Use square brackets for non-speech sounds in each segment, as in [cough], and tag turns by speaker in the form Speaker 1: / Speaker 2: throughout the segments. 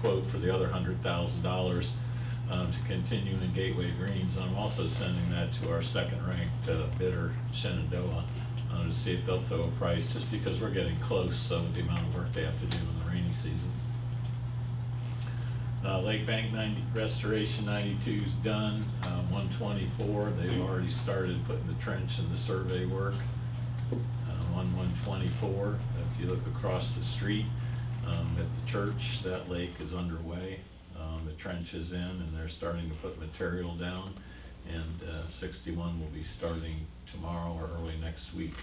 Speaker 1: quote for the other hundred thousand dollars um, to continue in Gateway Greens. I'm also sending that to our second-ranked uh, bidder, Shenandoah, uh, to see if they'll throw a price, just because we're getting close uh, with the amount of work they have to do in the rainy season. Uh, Lake Bank 90, Restoration 92's done, uh, 124, they've already started putting the trench and the survey work uh, on 124. If you look across the street um, at the church, that lake is underway. Um, The trench is in and they're starting to put material down. And uh, 61 will be starting tomorrow or early next week.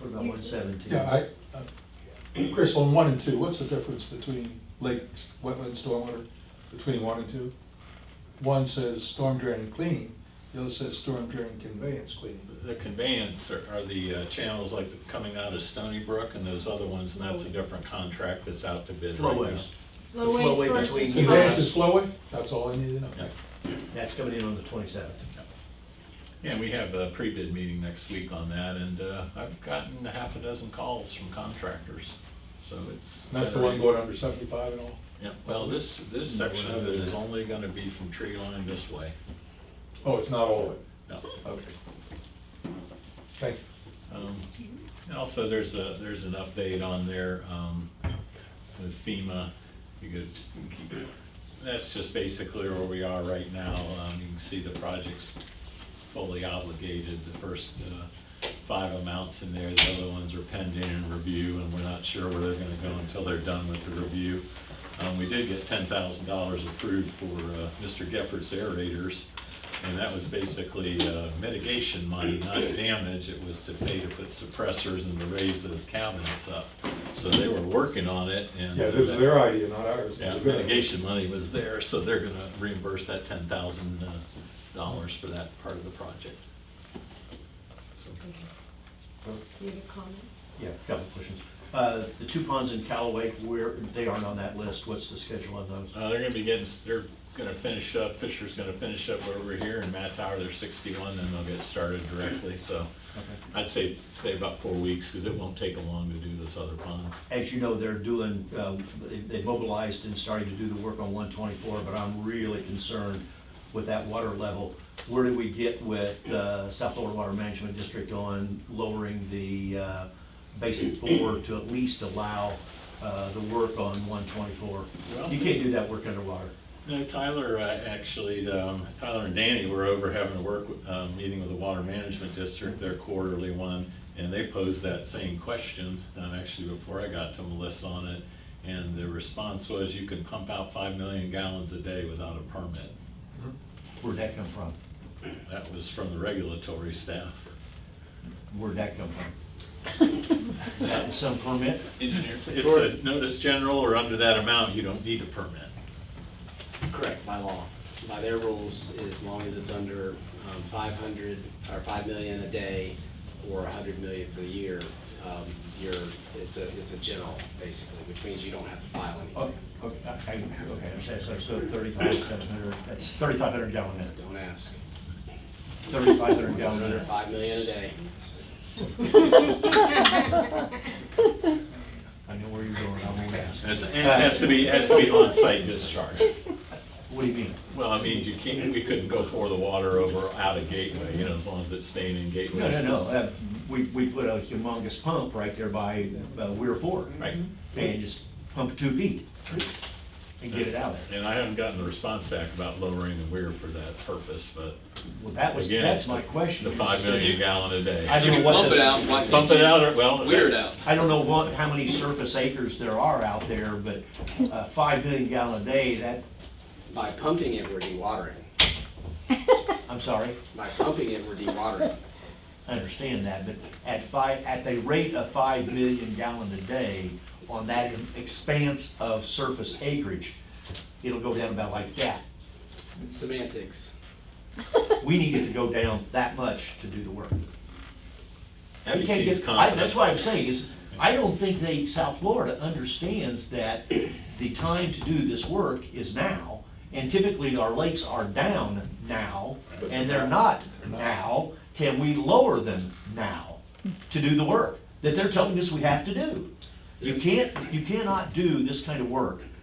Speaker 2: What about one seventeen?
Speaker 3: Yeah, I, uh, Chris, on one and two, what's the difference between lake, wetland, stormwater, between one and two? One says storm drain and cleaning, the other says storm drain conveyance cleaning.
Speaker 1: The conveyance are are the uh, channels like coming out of Stony Brook and those other ones, and that's a different contract that's out to bid right now.
Speaker 2: Flowways.
Speaker 4: Low
Speaker 2: The flowway
Speaker 4: wage versus.
Speaker 2: between
Speaker 3: Conveyance
Speaker 4: high.
Speaker 3: is flowway, that's all I need to know.
Speaker 1: Yeah.
Speaker 2: That's coming in on the twenty-seventh.
Speaker 1: Yeah, we have a pre-bid meeting next week on that, and uh, I've gotten a half a dozen calls from contractors, so it's.
Speaker 3: And that's the one going under seventy-five and all?
Speaker 1: Yeah, well, this, this section of it is only gonna be from tree line this way.
Speaker 3: Oh, it's not all of it,
Speaker 1: No.
Speaker 3: okay. Thank you.
Speaker 1: Um, And also, there's a, there's an update on there um, with FEMA. You could, keep it- that's just basically where we are right now. Um, You can see the project's fully obligated, the first uh, five amounts in there. The other ones are pending in review, and we're not sure where they're gonna go until they're done with the review. Um, We did get ten thousand dollars approved for uh, Mr. Geppert's aerators. And that was basically uh, mitigation money, not damage, it was to pay to put suppressors and to raise those cabinets up. So they were working on it and.
Speaker 3: Yeah, this is their idea, not ours.
Speaker 1: Yeah, mitigation money was there, so they're gonna reimburse that ten thousand uh, dollars for that part of the project. So,
Speaker 4: You have a comment?
Speaker 2: Yeah, a couple of questions. Uh, the two ponds in Callaway, where, they aren't on that list, what's the schedule on those?
Speaker 1: Uh, they're gonna be getting, they're gonna finish up, Fisher's gonna finish up over here in Matt Tower, they're sixty-one, then they'll get started directly, so.
Speaker 2: Okay.
Speaker 1: I'd say, say about four weeks, because it won't take them long to do those other ponds.
Speaker 2: As you know, they're doing, um, they- they mobilized and starting to do the work on one twenty-four, but I'm really concerned with that water level. Where do we get with, uh, South Florida Water Management District on lowering the, uh, basic bore to at least allow, uh, the work on one twenty-four?
Speaker 1: Well-
Speaker 2: You can't do that work underwater.
Speaker 1: No, Tyler, uh, actually, um, Tyler and Danny were over having a work, uh, meeting with the Water Management District, their quarterly one, and they posed that same question, uh, actually before I got to Melissa on it. And the response was, you can pump out five million gallons a day without a permit.
Speaker 2: Where'd that come from?
Speaker 1: That was from the regulatory staff.
Speaker 2: Where'd that come from? That is some permit?
Speaker 1: Engineers, it's a notice general or under that amount, you don't need a permit.
Speaker 5: Correct, by law. By their rules, as long as it's under um, 500, or 5 million a day, or 100 million for the year, um, you're, it's a, it's a general, basically, which means you don't have to file
Speaker 2: Oh,
Speaker 5: anything.
Speaker 2: Okay, I, I- okay, I'm sorry, so- so thirty-five, seven hundred, that's thirty-five hundred gallon minute,
Speaker 5: Don't ask.
Speaker 2: thirty-five hundred
Speaker 5: It's
Speaker 2: gallon
Speaker 5: under
Speaker 2: minute.
Speaker 5: 5 million a day.
Speaker 4: [laughs]
Speaker 2: I know where you're going, I won't ask.
Speaker 1: And it's- and it has to be, has to be on-site discharge.
Speaker 2: What do you mean?
Speaker 1: Well, I mean, you can't, we couldn't go pour the water over out of Gateway, you know, as long as it's staying in Gateway.
Speaker 2: No, no, no, uh, we, we put a humongous pump right there by uh, Weir Ford.
Speaker 1: Right,
Speaker 2: And just pump two feet and get it out of there.
Speaker 1: and I haven't gotten the response back about lowering the weir for that purpose, but
Speaker 2: Well, that was,
Speaker 1: again.
Speaker 2: that's
Speaker 1: it's the-
Speaker 2: my question.
Speaker 1: The
Speaker 2: is- uh,
Speaker 1: five million gallon a day.
Speaker 2: I don't know what
Speaker 6: Pump it
Speaker 2: this.
Speaker 6: out, why
Speaker 1: Pump it out, or, well.
Speaker 6: Weir it
Speaker 1: that's-
Speaker 2: I don't know what, how many surface acres there are out there, but uh, five million gallon a day, that,
Speaker 5: By pumping it, we're dewatering.
Speaker 2: I'm sorry,
Speaker 5: By pumping it, we're dewatering.
Speaker 2: I understand that, but at five, at the rate of five million gallon a day on that expanse of surface acreage, it'll go down about like that.
Speaker 5: It's semantics.
Speaker 2: We need it to go down that much to do the work.
Speaker 1: Abby
Speaker 2: You can't
Speaker 1: seems
Speaker 2: get- I-
Speaker 1: confident.
Speaker 2: That's why I'm saying is, I don't think they, South Florida understands that the time to do this work is now. And typically our lakes are down now and they're not now. Can we lower them now to do the work that they're telling us we have to do? You can't, you cannot do this kind of work